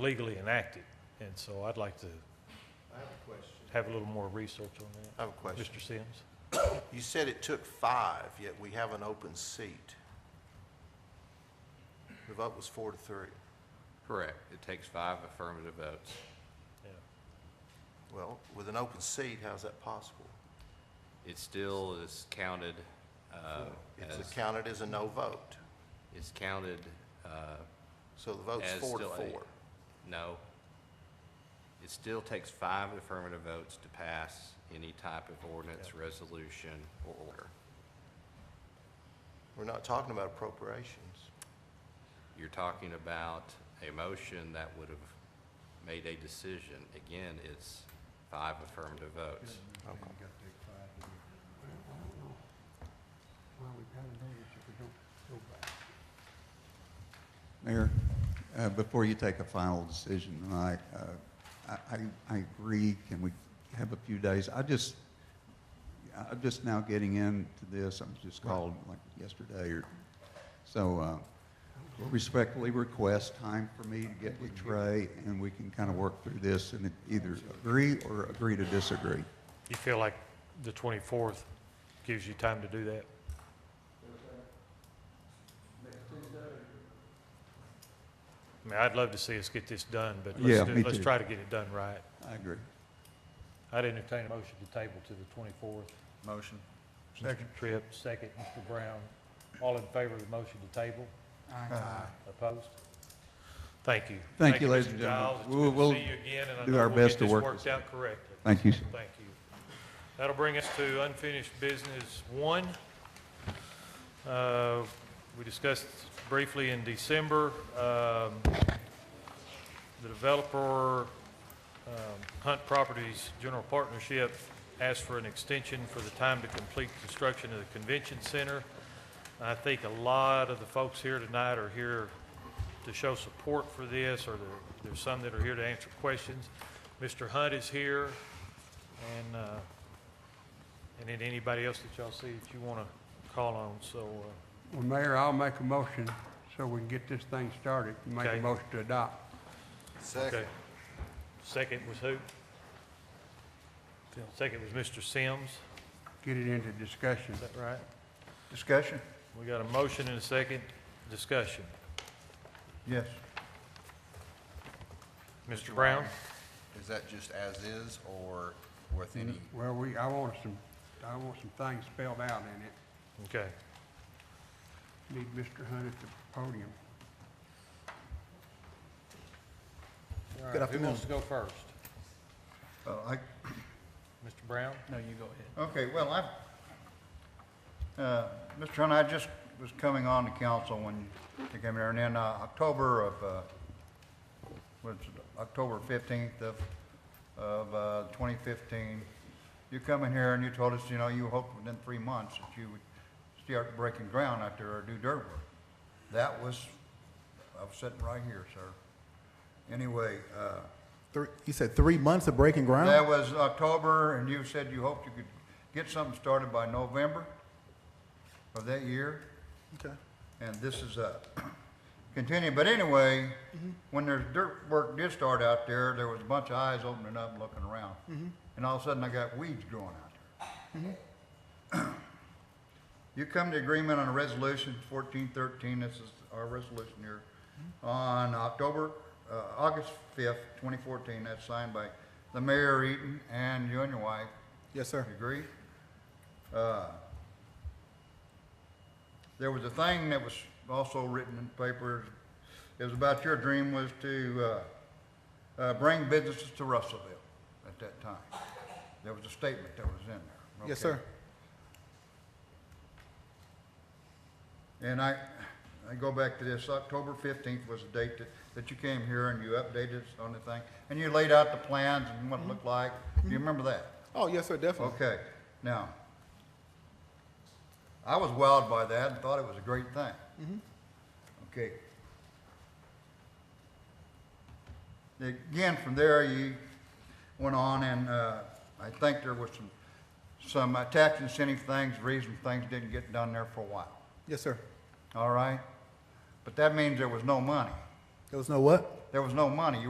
legally enacted. And so I'd like to I have a question. have a little more research on that. I have a question. Mr. Sims? You said it took five, yet we have an open seat. The vote was four to three. Correct. It takes five affirmative votes. Yeah. Well, with an open seat, how's that possible? It still is counted, uh, It's as, counted as a no vote, it's counted, uh, so the vote's As four to still a- four. no. It still takes five affirmative votes to pass any type of ordinance, resolution, or order. We're not talking about appropriations. You're talking about a motion that would have made a decision. Again, it's five affirmative votes. Mayor, uh, before you take a final decision tonight, uh, I, I- I agree, can we have a few days? I just, I'm just now getting into this, I'm just called like yesterday or, so uh, we'll respectfully request time for me to get with Trey and we can kind of work through this and either agree or agree to disagree. You feel like the 24th gives you time to do that? I mean, I'd love to see us get this done, but Yeah, let's, do- me let's too. try to get it done right. I agree. I'd entertain a motion to table to the 24th. Motion. Second. Tripp, second, Mr. Brown. All in favor of the motion to table? Aye. Opposed? Thank you. Thank you, ladies and Mr. gentlemen. Giles. It's We'll- good we'll to see you again, and I do know our we'll get best to this work worked this out correctly. Thank you, sir. Thank you. That'll bring us to unfinished business one. Uh, We discussed briefly in December, um, the developer um, Hunt Properties General Partnership asked for an extension for the time to complete construction of the convention center. I think a lot of the folks here tonight are here to show support for this, or there- there's some that are here to answer questions. Mr. Hunt is here, and, uh, and then anybody else that y'all see that you want to call on, so, uh, Well, Mayor, I'll make a motion so we can get this thing started, make Okay. a motion to adopt. Second. okay. Second was who? Second was Mr. Sims, Get it into discussion. is that right? Discussion? We got a motion and a second discussion. Yes. Mr. Brown? Is that just as is or with any? Well, we, I want some, I want some things spelled out in it. Okay. Need Mr. Hunt at the podium. All right, Who wants to go first? Oh, I, Mr. Brown? No, you go okay, well, I, uh, Mr. Hunt, I just was coming on to council when you came here, and then, uh, October of, uh, was October fifteenth of, of, uh, twenty fifteen, you come in here and you told us, you know, you hoped within three months that you would start breaking ground out there or do dirt work. That was, I was sitting right here, sir. Anyway, uh, Three, you said three months of breaking ground? That was October, and you said you hoped you could get something started by November of that year, Okay. and this is uh Continue, but anyway, when there's dirt work did start out there, there was a bunch of eyes opening up, and looking around. And all of a sudden, I got weeds growing out there. You come to agreement on a resolution fourteen thirteen, this is our resolution here, on October, uh, August fifth, twenty fourteen, that's signed by the mayor Eaton and you and your wife, Yes, sir. you agree? Uh, There was a thing that was also written in papers, it was about your dream was to, uh, uh, bring businesses to Russellville at that time. There was a statement that was in there. Yes, okay? sir. And I, I go back to this, October fifteenth was the date that, that you came here and you updated us on the thing, and you laid out the plans and what it looked like. Do you remember that? Oh, yes, sir, definitely. Okay, now, I was wowed by that and thought it was a great thing. Okay. Again, from there, you went on and, uh, I think there was some, some uh, tax incentive things, reason things didn't get done there for a while, Yes, sir. all right? But that means there was no money. There was no what? There was no money. You